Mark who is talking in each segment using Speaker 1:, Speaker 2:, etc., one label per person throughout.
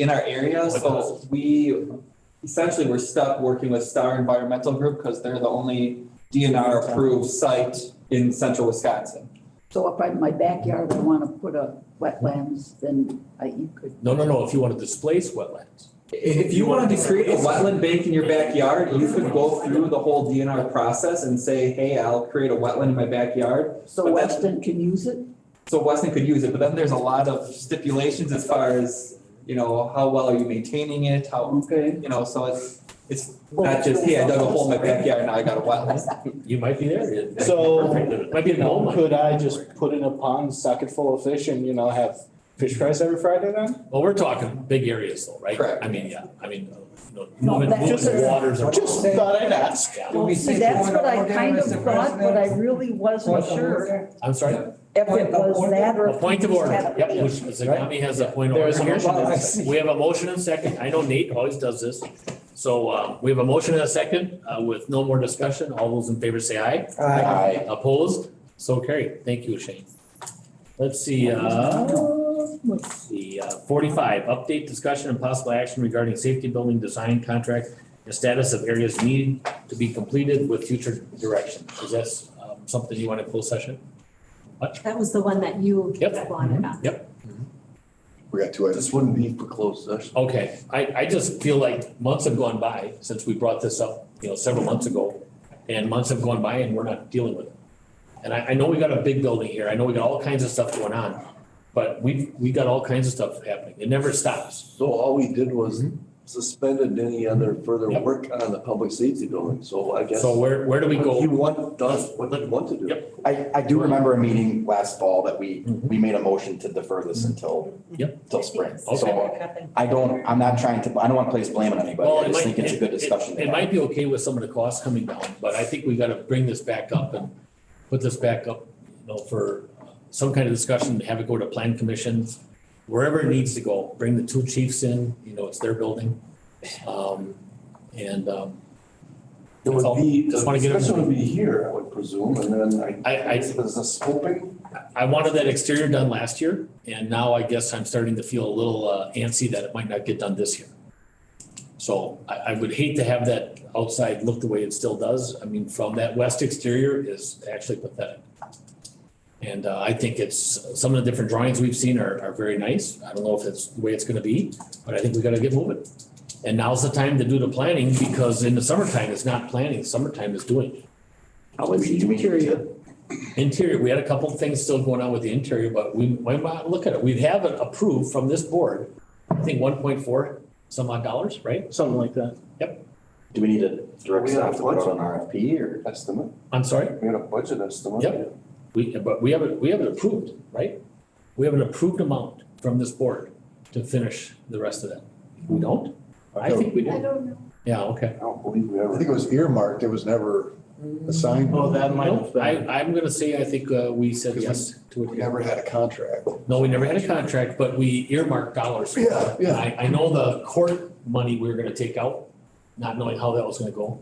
Speaker 1: in our area, so we essentially were stuck working with Star Environmental Group because they're the only DNR approved site in central Wisconsin.
Speaker 2: So if in my backyard, I want to put a wetlands, then I, you could,
Speaker 3: No, no, no, if you want to displace wetlands.
Speaker 1: If you wanted to create a wetland bank in your backyard, you could go through the whole DNR process and say, hey, I'll create a wetland in my backyard.
Speaker 2: so
Speaker 1: But that-
Speaker 2: Weston can use it?
Speaker 1: So Weston could use it, but then there's a lot of stipulations as far as, you know, how well are you maintaining it, how,
Speaker 2: Okay.
Speaker 1: you know, so it's, it's not just, hey, I dug a hole in my backyard, now I got a wetland.
Speaker 3: You might be there.
Speaker 4: So-
Speaker 3: Might be a gold mine.
Speaker 4: Could I just put in a pond, socket full of fish and, you know, have fish fries every Friday then?
Speaker 3: Well, we're talking big areas though, right?
Speaker 1: Correct.
Speaker 3: I mean, yeah, I mean, uh, you know,
Speaker 2: No,
Speaker 3: moving,
Speaker 2: that's-
Speaker 3: moving waters. around.
Speaker 4: Just thought I'd ask.
Speaker 3: Yeah.
Speaker 5: Do we
Speaker 2: See,
Speaker 5: say
Speaker 2: that's
Speaker 5: point of
Speaker 2: what I
Speaker 5: order,
Speaker 2: kind of
Speaker 5: Mr.
Speaker 2: thought, but I
Speaker 5: President?
Speaker 2: really wasn't
Speaker 5: Point of
Speaker 2: sure
Speaker 5: order.
Speaker 3: I'm sorry,
Speaker 2: if it
Speaker 5: Point of
Speaker 2: was
Speaker 5: order.
Speaker 2: that or.
Speaker 3: a
Speaker 2: if
Speaker 3: point of
Speaker 2: we
Speaker 3: order,
Speaker 2: had a
Speaker 3: yep,
Speaker 2: ban.
Speaker 3: which Zagami has a point of
Speaker 4: There
Speaker 3: order.
Speaker 4: is a motion and a second.
Speaker 3: We have a motion and a second, I know Nate always does this. So, uh, we have a motion and a second, uh, with no more discussion, all those in favor say aye.
Speaker 4: Aye.
Speaker 3: Opposed, so carried, thank you, Shane. Let's see, uh, let's see, uh, forty-five, update discussion and possible action regarding safety building design contract and status of areas needing to be completed with future direction, is that um, something you want to close session?
Speaker 6: That was the one that you
Speaker 3: Yep.
Speaker 7: Mm-hmm.
Speaker 6: wanted on.
Speaker 8: We got two items.
Speaker 9: This wouldn't be for closed session.
Speaker 3: Okay, I, I just feel like months have gone by since we brought this up, you know, several months ago. And months have gone by and we're not dealing with it. And I, I know we got a big building here. I know we got all kinds of stuff going on. But we've, we got all kinds of stuff happening. It never stops.
Speaker 9: So all we did was suspended any other further
Speaker 3: Mm-hmm. Yep.
Speaker 9: work on the public safety building, so I guess.
Speaker 3: So where, where do we
Speaker 9: He
Speaker 3: go?
Speaker 9: want, does what he want to do.
Speaker 3: Yep.
Speaker 7: I, I do remember a meeting last fall that we, we made a motion to defer this until,
Speaker 3: Yep.
Speaker 7: till spring.
Speaker 3: Okay.
Speaker 7: So I don't, I'm not trying to, I don't want to place blame on anybody.
Speaker 3: Well,
Speaker 7: I
Speaker 3: it
Speaker 7: just
Speaker 3: might-
Speaker 7: think it's a good
Speaker 3: it- it-
Speaker 7: discussion. to
Speaker 3: It
Speaker 7: have.
Speaker 3: might be okay with some of the costs coming down, but I think we gotta bring this back up and put this back up, you know, for some kind of discussion, have it go to plan commissions, wherever it needs to go, bring the two chiefs in, you know, it's their building. Um, and, um,
Speaker 9: It
Speaker 3: That's all.
Speaker 9: would be, the
Speaker 3: Just wanna get him-
Speaker 9: discussion would be here, I would presume, and then I.
Speaker 3: I- I-
Speaker 9: Is this scoping?
Speaker 3: I wanted that exterior done last year, and now I guess I'm starting to feel a little uh, antsy that it might not get done this year. So I, I would hate to have that outside look the way it still does. I mean, from that west exterior is actually pathetic. And uh, I think it's, some of the different drawings we've seen are, are very nice. I don't know if it's the way it's gonna be, but I think we gotta get moving. And now's the time to do the planning, because in the summertime, it's not planning, summertime is doing.
Speaker 7: Do we- do we need to-
Speaker 3: Interior, we had a couple of things still going on with the interior, but we, we might look at it. We have it approved from this board. I think one point four some odd dollars, right?
Speaker 4: Something like that.
Speaker 7: Do we need to direct
Speaker 9: We
Speaker 7: staff
Speaker 9: have
Speaker 7: to put out
Speaker 9: budget.
Speaker 7: an RFP or?
Speaker 9: Estimate,
Speaker 3: I'm sorry,
Speaker 9: we had a budget estimate.
Speaker 3: Yep. we, but we have it, we have it approved, right? We have an approved amount from this board to finish the rest of that. We don't? I think we
Speaker 6: I
Speaker 3: do.
Speaker 6: don't know.
Speaker 3: Yeah, okay.
Speaker 9: I don't believe we ever.
Speaker 10: I think it was earmarked, it was never assigned.
Speaker 4: Oh, that might have
Speaker 3: No, I,
Speaker 4: been.
Speaker 3: I'm gonna say, I think, uh, we said yes to
Speaker 10: We
Speaker 3: it.
Speaker 10: never had a contract.
Speaker 3: No, we never had a contract, but we earmarked dollars.
Speaker 10: Yeah, yeah.
Speaker 3: I, I know the court money we were gonna take out, not knowing how that was gonna go.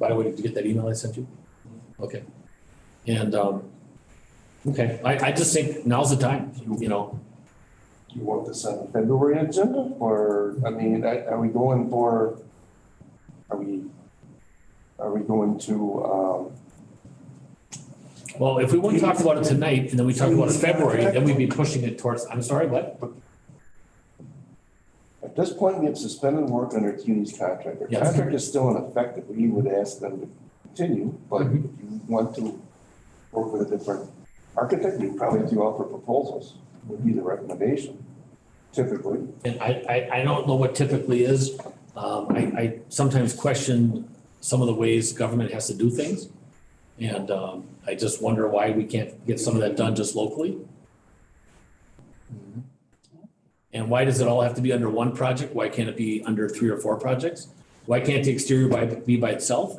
Speaker 3: By the way, did you get that email I sent you? Okay. And, um, okay, I, I just think now's the time, you know,
Speaker 9: Do you want this on the February agenda, or, I mean, I- are we going for, are we, are we going to, um,
Speaker 3: well, if we wouldn't talk about it tonight and then we talk about it in February, then we'd be pushing it towards, I'm sorry, what?
Speaker 9: At this point, we have suspended work under CUNY's contract. The
Speaker 3: Yes.
Speaker 9: contract is still in effect, if we would ask them to continue, but if you want to work with a different architect, we probably have to offer proposals, would be the recommendation typically.
Speaker 3: And I, I, I don't know what typically is. Um, I, I sometimes question some of the ways government has to do things. And, um, I just wonder why we can't get some of that done just locally. And why does it all have to be under one project? Why can't it be under three or four projects? Why can't the exterior by, be by itself?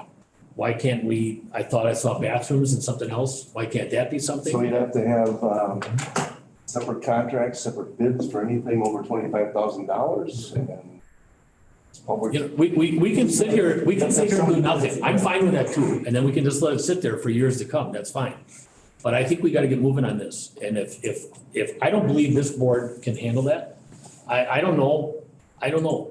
Speaker 3: Why can't we, I thought I saw bathrooms and something else. Why can't that be something?
Speaker 9: So you'd have to have, um, separate contracts, separate bids for anything over twenty-five thousand dollars and it's public.
Speaker 3: You know, Oh, we, we, we can sit here, we can sit here and do nothing. I'm fine with that too. And then we can just let it sit there for years to come. That's fine. But I think we gotta get moving on this. And if, if, if, I don't believe this board can handle that. I, I don't know I don't know,